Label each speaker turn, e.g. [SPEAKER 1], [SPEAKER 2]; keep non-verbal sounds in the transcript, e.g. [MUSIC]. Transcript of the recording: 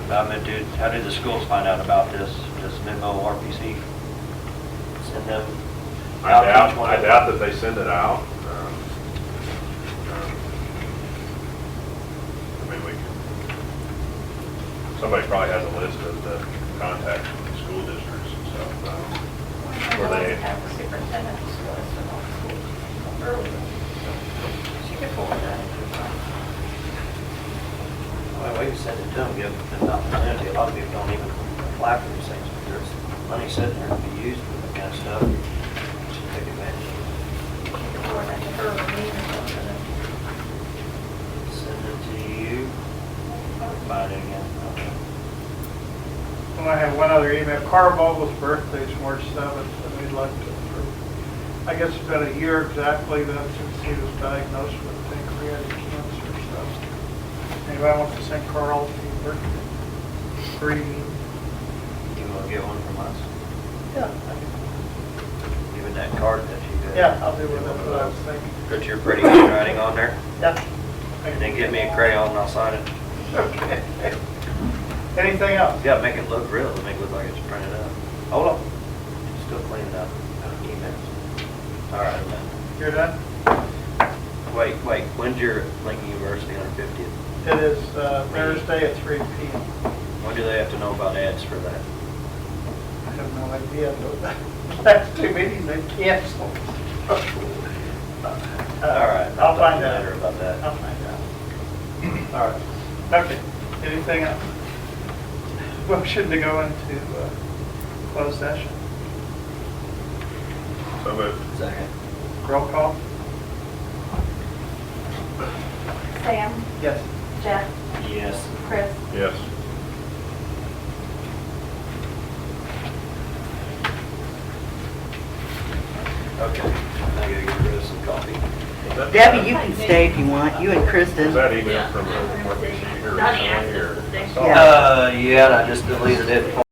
[SPEAKER 1] I mean, did, how did the schools find out about this, this memo RPC? Send them
[SPEAKER 2] I
[SPEAKER 1] out to
[SPEAKER 2] doubt,
[SPEAKER 1] each one?
[SPEAKER 2] I doubt that they send it out. Um, um, I mean, we can, somebody probably has a list of the contacts from the school districts and stuff. um, Were they-
[SPEAKER 3] Have the superintendent's list of all schools earlier. She could forward that if you'd like.
[SPEAKER 1] Well, we can send it to them, give them an opportunity. A lot of people don't even apply for these things, but there's money sitting there to be used for that kind of stuff. Should take advantage of
[SPEAKER 3] You could forward that to her or me or something.
[SPEAKER 1] it. Send it to you, find it again.
[SPEAKER 4] And I have one other email. Carl Vogel's birthday is March 7th, and we'd like to approve. I guess it's been a year exactly then since he was diagnosed with pancreatic cancer, so. Anybody wants to send Carl a birthday greeting?
[SPEAKER 1] You want to get one from us?
[SPEAKER 4] Yeah.
[SPEAKER 1] Even that card that you got?
[SPEAKER 4] Yeah, I'll do one, that's what I was thinking.
[SPEAKER 1] Put your pretty handwriting on there,
[SPEAKER 4] Yeah.
[SPEAKER 1] and then give me a crayon and I'll sign it.
[SPEAKER 4] Okay. [LAUGHS] Anything else?
[SPEAKER 1] Yeah, make it look real, make it look like it's printed up. Hold on, still cleaning up emails. All right, man.
[SPEAKER 4] You're done?
[SPEAKER 1] Wait, wait, when's your Lincoln University 150th?
[SPEAKER 4] It is uh, Thursday at 3 PM.
[SPEAKER 1] When do they have to know about ads for that?
[SPEAKER 4] I have no idea, but [LAUGHS] that's too many, they canceled. All
[SPEAKER 1] All right,
[SPEAKER 4] right,
[SPEAKER 1] I'll talk
[SPEAKER 4] I'll
[SPEAKER 1] to
[SPEAKER 4] find
[SPEAKER 1] you later
[SPEAKER 4] out.
[SPEAKER 1] about that.
[SPEAKER 4] I'll find out. All right, okay, anything else? Motion to go into uh, closed session,
[SPEAKER 2] So moved.
[SPEAKER 1] Second.
[SPEAKER 4] roll call?
[SPEAKER 5] Sam,
[SPEAKER 4] Yes.
[SPEAKER 5] Jeff,
[SPEAKER 1] Yes.
[SPEAKER 5] Chris,
[SPEAKER 2] Yes.
[SPEAKER 1] Okay, I gotta get rid of some coffee.
[SPEAKER 6] Debbie, you can stay if you want, you and
[SPEAKER 2] Is
[SPEAKER 6] Kristen.
[SPEAKER 2] that email from, uh, from here?
[SPEAKER 3] Donnie asked us to stay.
[SPEAKER 2] I saw it.
[SPEAKER 6] Yeah.
[SPEAKER 1] Uh, yeah, and I just deleted it.